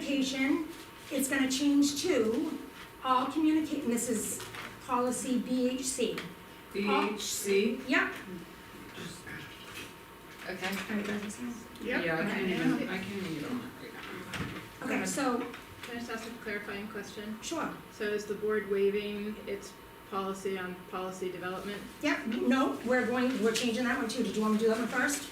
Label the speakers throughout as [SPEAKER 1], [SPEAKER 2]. [SPEAKER 1] communication, it's gonna change to all communicate, and this is policy BHC.
[SPEAKER 2] BHC,
[SPEAKER 1] Yep.
[SPEAKER 2] okay.
[SPEAKER 1] Alright, go ahead, Sam.
[SPEAKER 2] Yeah, I can't even,
[SPEAKER 3] Okay.
[SPEAKER 2] I can't even get on that right now.
[SPEAKER 1] Okay, so,
[SPEAKER 3] Can I just ask a clarifying question?
[SPEAKER 1] sure,
[SPEAKER 3] So is the board waiving its policy on policy development?
[SPEAKER 1] yep, no, we're going, we're changing that one too, did you wanna do that one first?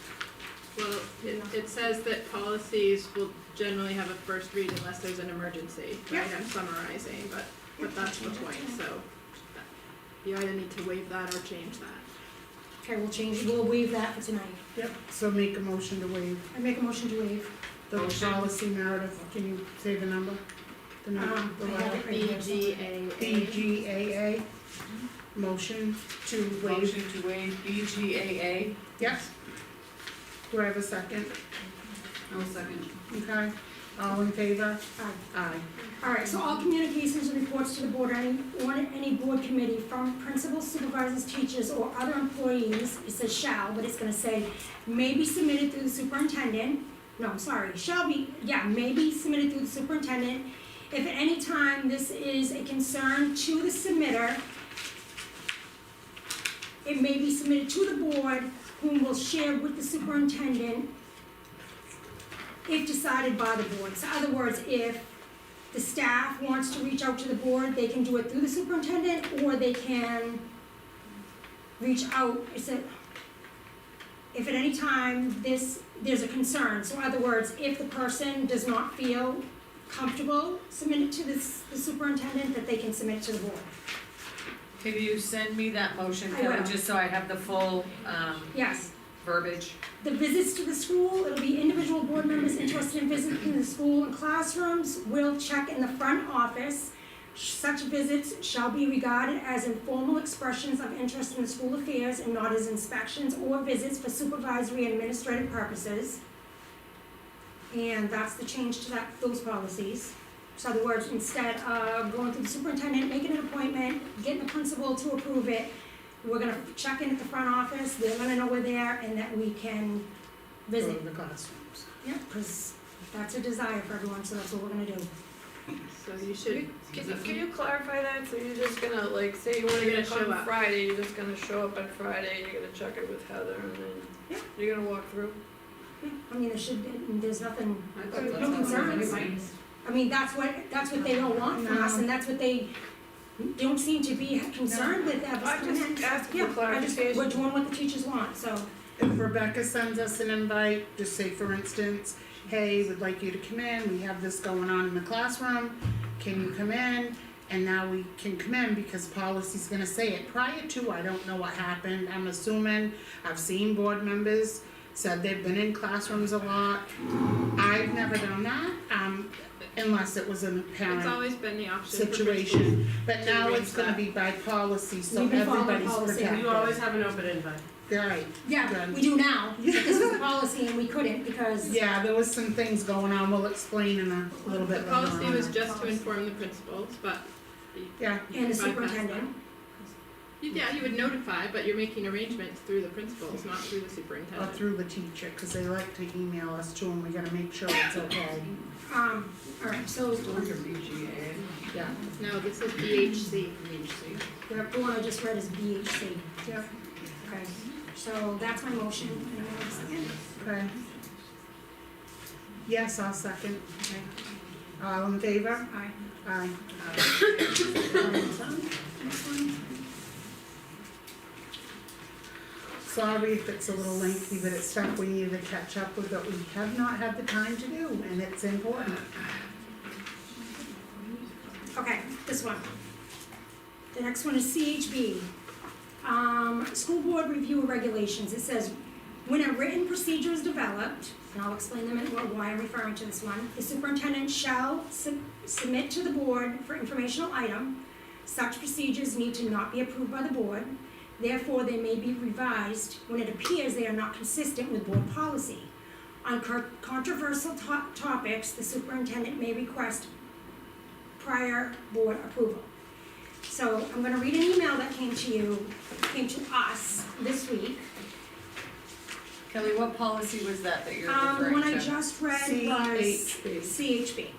[SPEAKER 3] Well, it, it says that policies will generally have a first read unless there's an emergency, right?
[SPEAKER 1] Yeah.
[SPEAKER 3] I'm summarizing, but, but that's the point, so that- you either need to waive that or change that.
[SPEAKER 1] Okay, we'll change, we'll waive that for tonight.
[SPEAKER 4] Yep, so make a motion to waive
[SPEAKER 1] I make a motion to waive.
[SPEAKER 4] the
[SPEAKER 2] Motion.
[SPEAKER 4] policy narrative, can you say the number? The number,
[SPEAKER 1] Um,
[SPEAKER 4] the
[SPEAKER 1] I have
[SPEAKER 4] letter?
[SPEAKER 1] it. B G
[SPEAKER 4] BGAA,
[SPEAKER 1] Mm-hmm.
[SPEAKER 4] motion to waive,
[SPEAKER 2] Motion to waive BGAA,
[SPEAKER 4] yes? Do I have a second?
[SPEAKER 2] no second.
[SPEAKER 4] Okay, all in favor?
[SPEAKER 1] Aye.
[SPEAKER 4] Aye.
[SPEAKER 1] Alright, so all communications and reports to the board, or any, or any board committee from principals, supervisors, teachers, or other employees, it says shall, but it's gonna say, may be submitted through the superintendent, no, I'm sorry, shall be, yeah, may be submitted through the superintendent. If at any time this is a concern to the submitter, it may be submitted to the board, whom will share with the superintendent if decided by the board. So other words, if the staff wants to reach out to the board, they can do it through the superintendent, or they can reach out, is it, if at any time this, there's a concern, so in other words, if the person does not feel comfortable, submit it to the, s- the superintendent, that they can submit to the board.
[SPEAKER 2] Can you send me that motion,
[SPEAKER 1] I will.
[SPEAKER 2] Kelly, just so I have the full, um,
[SPEAKER 1] Yes.
[SPEAKER 2] verbiage?
[SPEAKER 1] The visits to the school, it'll be individual board members interested in visiting the school and classrooms will check in the front office. Such visits shall be regarded as informal expressions of interest in the school affairs and not as inspections or visits for supervisory and administrative purposes. And that's the change to that, those policies. So in other words, instead of going through the superintendent, making an appointment, getting the principal to approve it, we're gonna check in at the front office, they're gonna know we're there, and that we can
[SPEAKER 4] Go
[SPEAKER 1] visit.
[SPEAKER 4] to the classrooms.
[SPEAKER 1] Yeah, because that's a desire for everyone, so that's what we're gonna do.
[SPEAKER 3] So you should,
[SPEAKER 5] Can you, can you clarify that? So you're just gonna like, say you wanna
[SPEAKER 3] You're
[SPEAKER 5] get it
[SPEAKER 3] gonna show
[SPEAKER 5] on
[SPEAKER 3] up.
[SPEAKER 5] Friday, you're just gonna show up on Friday, you're gonna check it with Heather and then
[SPEAKER 1] Yeah.
[SPEAKER 5] you're gonna walk through?
[SPEAKER 1] Yeah, I mean, there should, be- there's nothing,
[SPEAKER 2] I thought
[SPEAKER 1] no
[SPEAKER 2] that's what
[SPEAKER 1] concerns.
[SPEAKER 2] everybody-
[SPEAKER 1] I mean, that's what, that's what they don't want from us, and that's what they don't seem to be concerned with, that was
[SPEAKER 5] I'm just
[SPEAKER 1] coming in.
[SPEAKER 5] asking for
[SPEAKER 1] Yeah, I just,
[SPEAKER 5] clarification.
[SPEAKER 1] we're doing what the teachers want, so,
[SPEAKER 4] If Rebecca sends us an invite, just say for instance, hey, we'd like you to come in, we have this going on in the classroom, can you come in? And now we can come in because policy's gonna say it, prior to, I don't know what happened, I'm assuming, I've seen board members said they've been in classrooms a lot. I've never done that, um, unless it was a
[SPEAKER 3] it's
[SPEAKER 4] parent
[SPEAKER 3] always been the option for principals.
[SPEAKER 4] situation, but
[SPEAKER 3] to
[SPEAKER 4] now
[SPEAKER 3] arrange
[SPEAKER 4] it's gonna
[SPEAKER 3] that.
[SPEAKER 4] be by policy, so
[SPEAKER 1] We've been following
[SPEAKER 4] everybody's
[SPEAKER 1] policy.
[SPEAKER 4] protected.
[SPEAKER 6] You always have an open invite.
[SPEAKER 4] Right.
[SPEAKER 1] yeah,
[SPEAKER 4] Done.
[SPEAKER 1] we do now, but this was a policy and we couldn't because,
[SPEAKER 4] Yeah, there was some things going on, we'll explain in a little
[SPEAKER 3] The
[SPEAKER 4] bit later
[SPEAKER 3] policy
[SPEAKER 4] on.
[SPEAKER 3] was just to
[SPEAKER 1] Policy.
[SPEAKER 3] inform the principals, but
[SPEAKER 4] Yeah,
[SPEAKER 3] you
[SPEAKER 1] and the
[SPEAKER 3] bypassed that.
[SPEAKER 1] superintendent,
[SPEAKER 3] You- Yeah, you would notify, but you're making arrangements through the principals, not through the superintendent.
[SPEAKER 4] or through the teacher, cause they like to email us too, and we gotta make sure it's okay,
[SPEAKER 1] um, alright, so,
[SPEAKER 2] Those are BGAA,
[SPEAKER 4] yeah.
[SPEAKER 3] No, this is BHC.
[SPEAKER 2] BHC.
[SPEAKER 1] the one I just read is BHC.
[SPEAKER 4] Yep.
[SPEAKER 1] Okay, so that's my motion, anyone have a second?
[SPEAKER 4] Okay. Yes, I'll second. All in favor?
[SPEAKER 1] Aye.
[SPEAKER 4] Aye. Sorry if it's a little lengthy, but it's stuff we need to catch up with that we have not had the time to do, and it's important.
[SPEAKER 1] Okay, this one. The next one is CHB. Um, school board review of regulations, it says, when a written procedure is developed, and I'll explain them in why I'm referring to this one, the superintendent shall sub- submit to the board for informational item. Such procedures need to not be approved by the board, therefore they may be revised when it appears they are not consistent with board policy. On cur- controversial to- topics, the superintendent may request prior board approval. So I'm gonna read an email that came to you, came to us this week.
[SPEAKER 2] Kelly, what policy was that that you're referring
[SPEAKER 1] Um,
[SPEAKER 2] to?
[SPEAKER 1] the one I just read was
[SPEAKER 4] CHB.
[SPEAKER 1] CHB.